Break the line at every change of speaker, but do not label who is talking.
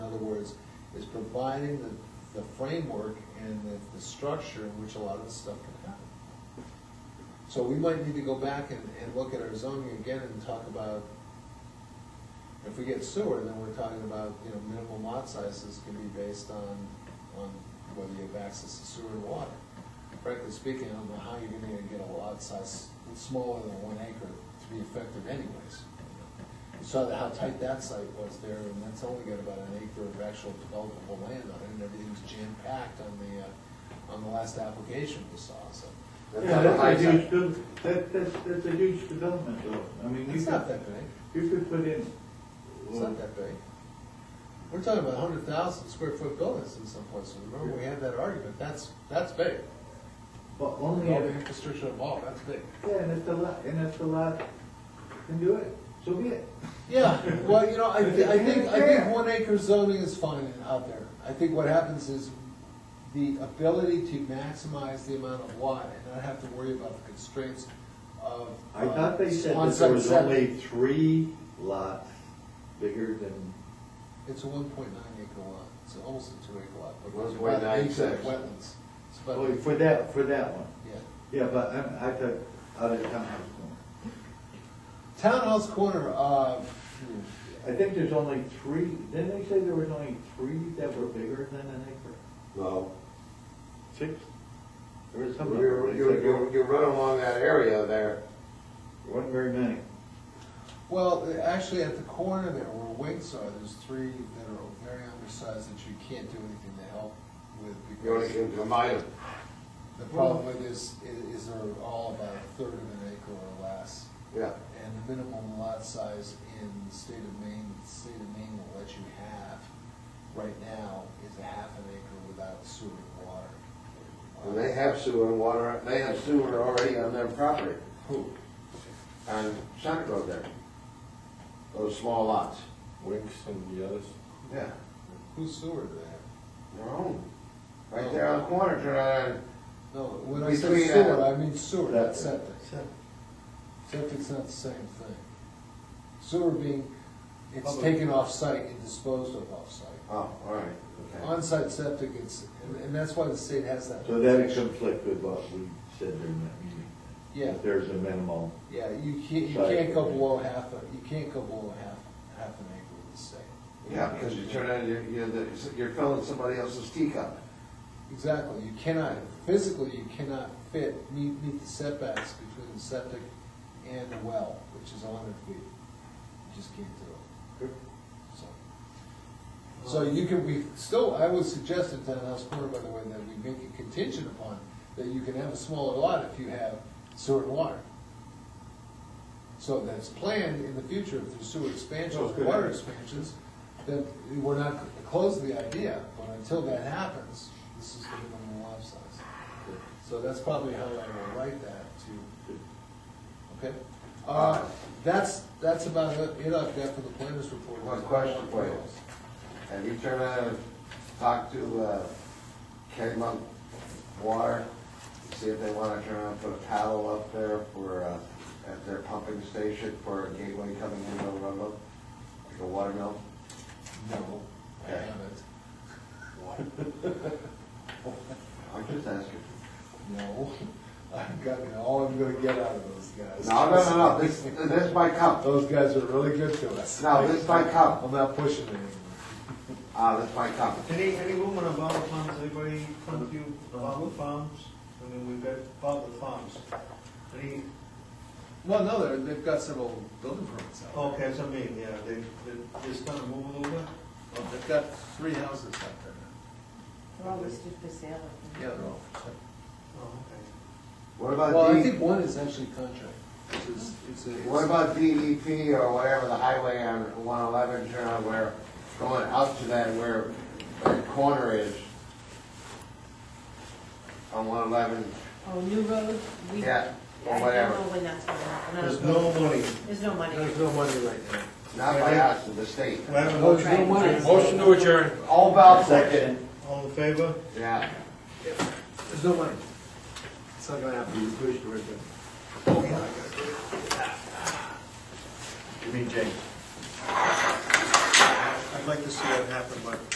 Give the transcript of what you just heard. providing the, the framework and the, the structure in which a lot of this stuff can happen. So we might need to go back and, and look at our zoning again and talk about, if we get sewer, then we're talking about, you know, minimum lot sizes can be based on, on whether you have access to sewer and water. Frankly speaking, I don't know how you're gonna get a lot size smaller than one acre to be effective anyways. You saw that- how tight that site was there, and that's only got about an acre of actual developable land on it, and everything's jam-packed on the, uh, on the last application we saw, so.
Yeah, that's a huge, de- that, that's, that's a huge development though. I mean, you
It's not
could,
that big,
you could put in,
it's not that big. We're talking about hundred thousand square foot buildings in some places, remember, we had that argument, that's, that's big.
but
All
only,
the
if-
infrastructure involved, that's big.
yeah, and if the lot, and if the lot can do it, so be it.
Yeah, well, you know, I, thi- I think, I
Yeah.
think one acre zoning is fine out there. I think what happens is the ability to maximize the amount of lot and not have to worry about the constraints of.
I
uh,
thought they said
on
that there was
Sunset.
only three lots bigger than,
It's a one point nine acre lot, it's almost a two acre lot, but
One
it's
point
about an
nine
acre of
six.
wetlands. It's about-
oh, for that, for that one.
yeah.
Yeah, but I, I thought, out of town,
Townhouse corner, uh, hmm,
I think there's only three, didn't they say there was only three that were bigger than an acre?
No,
Six? There was some number,
you're,
they
you're,
said
you're- you run along that area there,
there wasn't very many.
well, actually at the corner there where Winks are, there's three that are very undersized that you can't do anything to help with because.
you only can combine them.
The problem with this i- is they're all about a third of an acre or less,
yeah.
and the minimum lot size in the state of Maine, the state of Maine will let you have right now is a half an acre without sewer and water.
And they have sewer and water, they have sewer already on their property,
Who?
on Summit Road there. Those small lots.
Winks and the others.
Yeah.
Whose sewer do they have?
Their own. Right there on the corner, turn around,
No, when I say
Between, uh,
sewer, I mean sewer, not
That's
septic. Septic's not the same thing. Sewer being, it's
Public.
taken off-site and disposed of off-site.
oh, all right, okay.
On-site septic, it's, and- and that's why the state has that.
So that would conflict with what we said during that meeting.
Yeah.
That There's a minimal.
Yeah, you can't, you
Sorry.
can't go below half, a- you can't go below half, half an acre with the state.
Yeah, because you turn around, you're, you're, the- you're filling somebody else's teacup.
Exactly, you cannot, physically, you cannot fit, meet, meet the setbacks between the septic and the well, which is hundred feet. You just can't do it, so. So you can, we, still, I would suggest at Townhouse Corner, by the way, that we make it contingent upon that you can have a smaller lot if you have sewer and water. So that's planned in the future, if there's sewer expansions,
Okay.
water expansions, then we're not close to the idea, but until that happens, this is the minimum lot size. So that's probably how I will write that to, okay? Uh, that's, that's about it, it I've got for the planners report.
One question for you. Have you turned around and talked to, uh, Kegmont Water? to See if they wanna turn around and put a paddle up there for, uh, at their pumping station for a gateway coming into Arundel? Like a water mill?
No, I
Okay.
haven't.
I'm just asking.
No, I've got, all I'm gonna get out of those guys.
No, no, no, no, this, this might come.
Those guys are really good to us.
No, this might come.
I'm not pushing it anymore.
Ah, this might come.
Any, any woman about the farms, anybody come to you about the farms? I mean, we've got about the farms. Any,
Well, no, they're, they've got several building permits out.
okay, that's what I mean, yeah, they, they just kind of move it over?
Well, They've got three houses out there.
They're all listed for sale. I think.
Yeah, they're all. Uh-huh.
Oh,
What
Well,
about
I
D,
think one is actually contract, which is, it's a.
what about DEP or whatever, the highway on one eleven, turn around where, going up to that where that corner is? On one eleven,
Oh, new road? we-
Yeah, or
I
whatever.
don't know when that's gonna happen. I don't
There's
know.
no money.
There's no money.
There's no money right now.
not by us, but the state.
We have a
No, there's no
Right.
money.
Motion to adjourn.
All about that.
All in favor?
Yeah.
There's no money. It's not gonna happen. You pushed right there.
You mean James?
I'd like to see that happen, but